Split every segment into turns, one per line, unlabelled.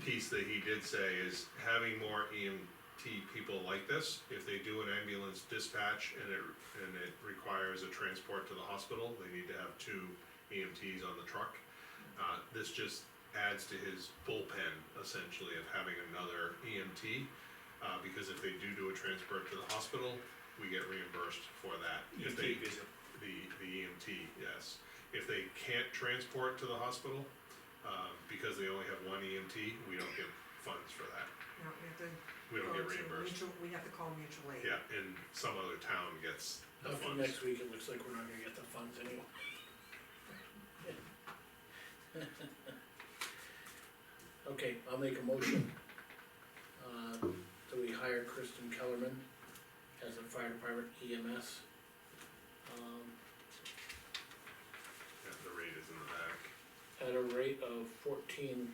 that he did say is having more EMT people like this, if they do an ambulance dispatch and it, and it requires a transport to the hospital, they need to have two EMTs on the truck. Uh, this just adds to his bullpen essentially of having another EMT, uh, because if they do do a transport to the hospital, we get reimbursed for that. If they-
EMT visit.
the, the EMT, yes. If they can't transport to the hospital, um, because they only have one EMT, we don't get funds for that.
No, we have to.
We don't
go
get
to
reimbursed.
mutual- We have to call mutual aid.
Yeah, and some other town gets the
After
funds.
next week, it looks like we're not gonna get the funds anyway. Okay, I'll make a motion. Uh, that we hire Kristen Kellerman as a fire department EMS. Um,
Yeah, the rate is in the back.
at a rate of fourteen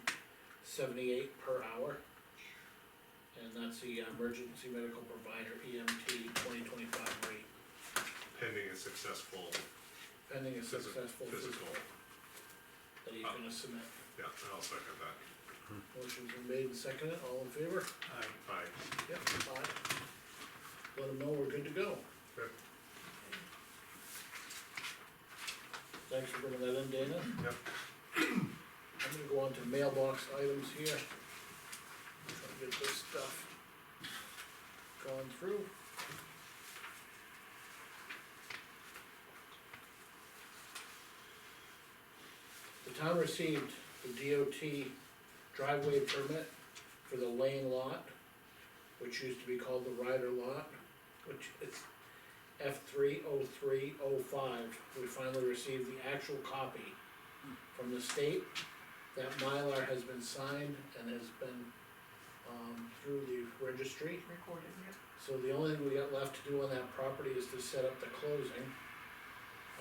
seventy-eight per hour. And that's the emergency medical provider EMT twenty twenty-five rate,
Pending a successful
pending a
phys-
successful
physical.
physical that he's gonna submit.
Yeah, and I'll second that.
Motion's been made and seconded, all in favor?
Aye.
Aye.
Yep. Aye. Let them know we're good to go.
Okay.
Thanks for bringing that in, Dana.
Yep.
I'm gonna go on to mailbox items here. Try to get this stuff gone through. The town received the DOT driveway permit for the lane lot, which used to be called the Ryder Lot, which is F three oh three oh five. We finally received the actual copy from the state. That Mylar has been signed and has been, um, through the registry.
Recorded, yeah.
So the only thing we got left to do on that property is to set up the closing.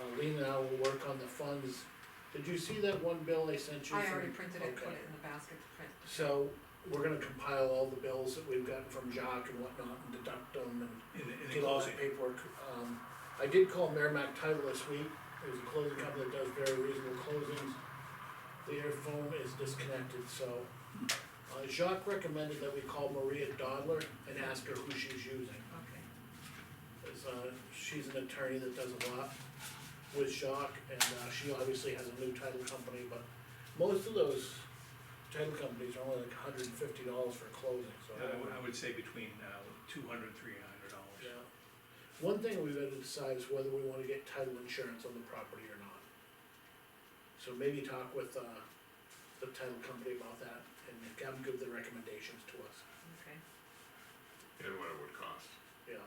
Uh, Lean and I will work on the funds. Did you see that one bill I sent you?
I
from-
already printed it, put
Okay.
it in the basket to print.
So, we're gonna compile all the bills that we've gotten from Jock and whatnot and deduct
In
them
the,
and
in the
get all
closing,
that paperwork. Um, I did call Merrimack Title this week, there's a closing company that does very reasonable closings. Their phone is disconnected, so, uh, Jacques recommended that we call Maria Dodler and ask her who she's using.
Okay.
It's, uh, she's an attorney that does a lot with Jacques, and, uh, she obviously has a new title company, but most of those title companies are only like hundred and fifty dollars for closing, so.
I would, I would say between, uh, two hundred, three hundred dollars.
Yeah. One thing we've got to decide is whether we wanna get title insurance on the property or not. So maybe talk with, uh, the title company about that and have them give the recommendations to us,
Okay.
And what it would cost,
yeah.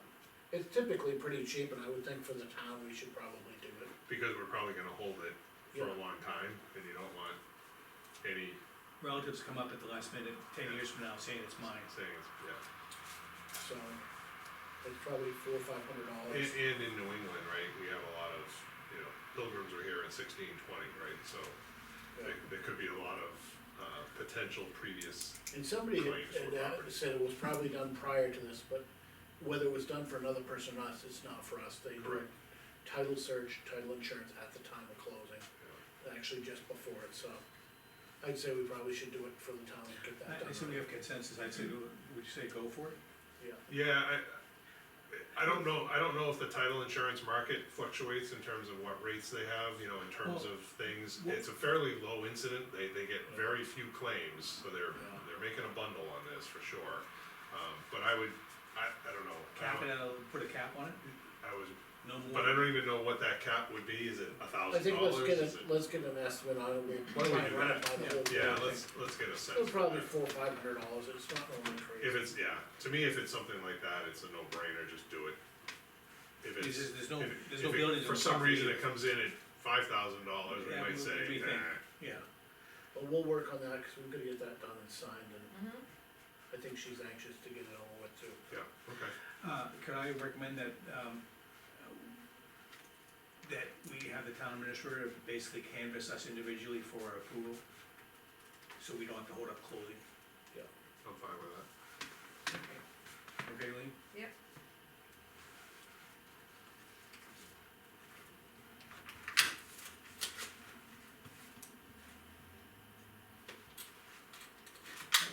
It's typically pretty cheap and I would think for the town, we should probably do it.
because we're probably gonna hold it for
Yeah.
a long time, and you don't want any
Relatives come up at the last minute, ten years from now, saying it's mine.
saying, it's- yeah.
So, it's probably four or five hundred
And,
dollars.
and in New England, right, we have a lot of, you know, pilgrims were here in sixteen twenty, right, so. There, there could be a lot of, uh, potential previous,
And somebody had,
Claims for
had, uh,
property.
said it was probably done prior to this, but whether it was done for another person or not, it's not for us, they do
Correct.
title search, title insurance at the time of closing,
you know,
actually just before it, so. I'd say we probably should do it for the town and get that
I, I assume we
done,
have consensus, I'd say, do- would you say go for it?
yeah,
yeah, I, I don't know, I don't know if the title insurance market fluctuates in terms of what rates they have, you know, in terms
Well,
of things.
well-
It's a fairly low incident, they, they get very few claims, so they're,
Yeah.
they're making a bundle on this for sure. Um, but I would, I, I don't know, I
Cap it,
don't-
out, put a cap on it,
I was,
no
but I
more.
don't even know what that cap would be, is it a
I
thousand
think let's
dollars?
get
Is
a,
it?
let's get an estimate on it, we'll
don't we
try and
do
run it
that?
by the
Yeah.
whole.
Yeah,
board.
let's, let's get a sense.
It'll probably
of
be
that.
four, or five hundred dollars, it's not normally
If
crazy,
it's, yeah, to me, if it's something like that, it's a no-brainer, just do it. If it's.
There's- there's no-
if-
there's no
if it-
buildings
For
on
some
property.
reason it comes in at five thousand dollars, we
Yeah,
might
we-
say,
we think.
nah,
Yeah,
but we'll work on that, cause we've gotta get that done and signed, and
Mhm.
I think she's anxious to get it over with too.
yeah, okay.
uh, could I recommend that, um, that we have the town administrator basically canvass us individually for our approval? So we don't have to hold up closing.